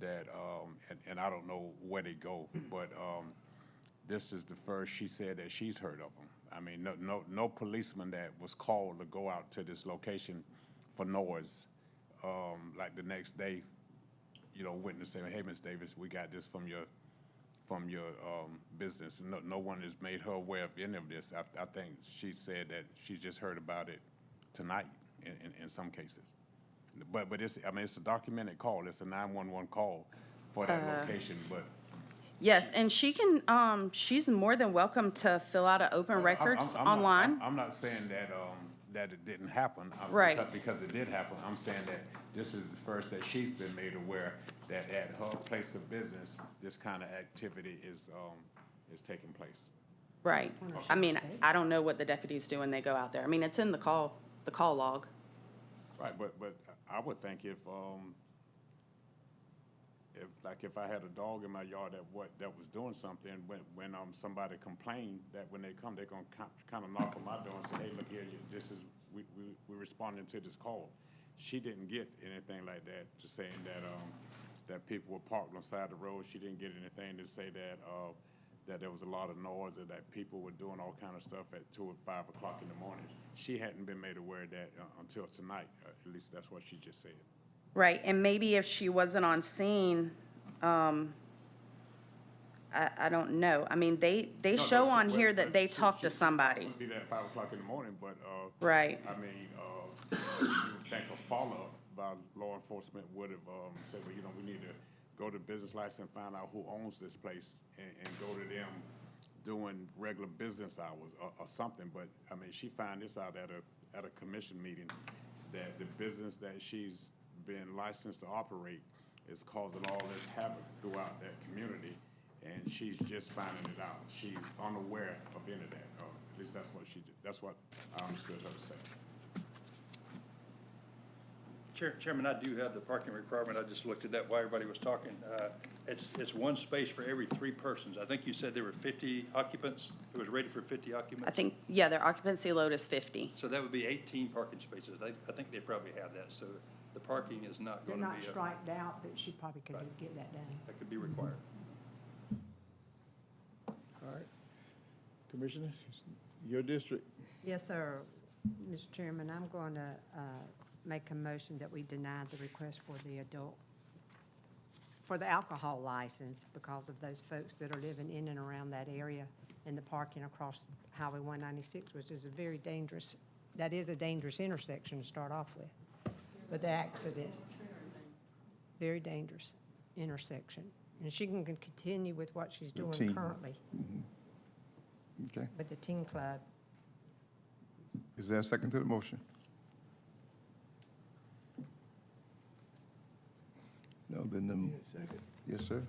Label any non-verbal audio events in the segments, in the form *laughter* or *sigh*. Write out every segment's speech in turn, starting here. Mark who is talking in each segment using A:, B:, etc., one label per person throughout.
A: that, um, and, and I don't know where they go, but, um, this is the first she said that she's heard of them. I mean, no, no, no policeman that was called to go out to this location for noise, um, like the next day, you know, witness saying, hey, Ms. Davis, we got this from your, from your, um, business. No, no one has made her aware of any of this. I, I think she said that she just heard about it tonight in, in, in some cases. But, but it's, I mean, it's a documented call. It's a nine-one-one call for
B: Uh,
A: that location, but.
B: Yes, and she can, um, she's more than welcome to fill out an open
A: I'm-
B: records
A: I'm- I'm not-
B: online.
A: I'm- I'm not saying that, um, that it didn't happen. I-
B: Right.
A: because- Because it did happen. I'm saying that this is the first that she's been made aware that at her place of business, this kind of activity is, um, is taking place.
B: Right. I mean, I don't know what the deputies do when they go out there. I mean, it's in the call, the call log.
A: Right, but, but I would think if, um, if, like, if I had a dog in my yard that what, that was doing something, when, when, um, somebody complained, that when they come, they're gonna kind of knock on my door and say, hey, look here, you- this is, we, we, we responding to this call. She didn't get anything like that, just saying that, um, that people were parked on the side of the road. She didn't get anything to say that, uh, that there was a lot of noise or that people were doing all kind of stuff at two or five o'clock in the morning. She hadn't been made aware of that uh, until tonight, Uh, at least that's what she just said.
B: Right, and maybe if she wasn't on scene, um, I, I don't know. I mean, they, they
A: No, no,
B: show
A: she-
B: on
A: well,
B: here
A: well,
B: that they
A: she-
B: talked
A: she-
B: to somebody.
A: Wouldn't be there at five o'clock in the morning, but, uh.
B: Right.
A: I mean, uh, you would think a follow-up by law enforcement would have, um, said, well, you know, we need to go to business license and find out who owns this place and, and go to them doing regular business hours or, or something, but, I mean, she found this out at a, at a commission meeting that the business that she's been licensed to operate is causing all this havoc throughout that community, and she's just finding it out. She's unaware of any of that, or at least that's what she, that's what I understood her to say.
C: Chair- Chairman, I do have the parking requirement. I just looked at that while everybody was talking. Uh, It's, it's one space for every three persons. I think you said there were 50 occupants. It was rated for 50
B: I
C: occupants.
B: think, yeah, their occupancy load is fifty.
C: So that would be 18 parking spaces. They, I think they probably have that, so the parking is not
D: They're
C: going to be.
D: not
C: a-
D: striped out, but she probably could
C: Right.
D: get that done.
C: That could be required.
E: All right. Commissioner, your district.
D: Yes, sir. Mr. Chairman, I'm going to uh, make a motion that we deny the request for the adult, for the alcohol license because of those folks that are living in and around that area and the parking across Highway 196, which is a very dangerous, that is a dangerous intersection to start off with, with the accidents. Very dangerous intersection. And she can continue with what she's doing
E: Routine.
D: currently
E: Okay.
D: with the teen club.
E: Is there a second to the motion? No, then the. Yes, sir.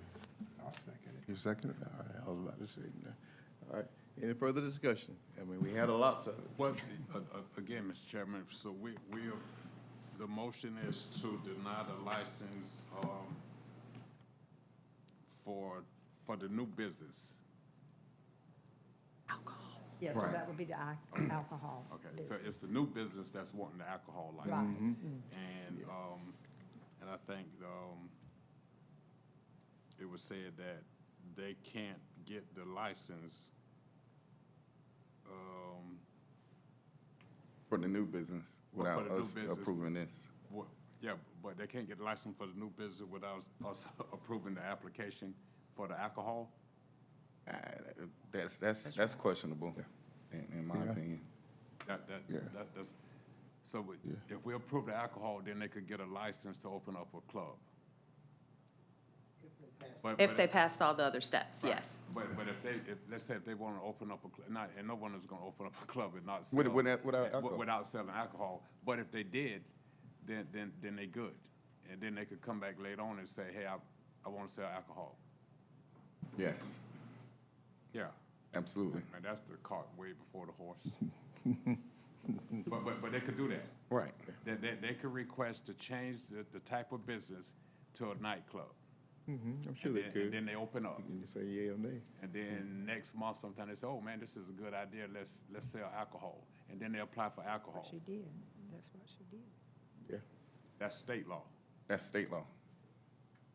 F: I'll second it.
E: You second it? All right, I was about to say. no. All right. Any further discussion? I mean, we had a lot of.
A: Well, a- a- again, Mr. Chairman, so we, we, are- the motion is to deny the license, um, for, for the new business.
D: Yes, so that would be the al- alcohol.
A: Okay,
D: business.
A: so it's the new business that's wanting the alcohol license.
F: Mm-hmm.
A: And, um, and I think, um, it was said that they can't get the license, um,
F: For the new business,
A: Well, Oh, for
F: without
A: the new
F: us
A: business.
F: approving this.
A: wha- yeah, but they can't get the license for the new business without us *laughs* approving the application for the alcohol?
F: Uh, That's, that's, that's questionable, in, in my opinion.
A: That, that,
E: Yeah.
A: that, that's, so we- if we approve the alcohol, then they could get a license to open up a club. But-
B: If
A: but-
B: they passed all the other steps,
A: Right.
B: yes.
A: But, but if they, if, let's say if they wanna open up a, cl- not, and no one is gonna open up a club and not sell.
F: With- without- without
A: eh, wi-
F: alcohol.
A: Without selling alcohol, but if they did, then, then, then they good. And then they could come back later on and say, hey, I, I wanna sell alcohol.
F: Yes,
A: Yeah,
F: absolutely.
A: and that's the cart way before the horse. *laughs* But, but, but they could do that.
F: Right.
A: They, they, they could request to change the, the type of business to a nightclub.
E: Mm-hmm, I'm sure
A: And
E: they
A: then, and
E: could.
A: then they open up.
E: And you say yea or nay.
A: And then next month, sometime they say, oh, man, this is a good idea, let's, let's sell alcohol. And then they apply for alcohol.
D: She did. That's what she did.
E: Yeah.
A: That's state law.
F: That's state law.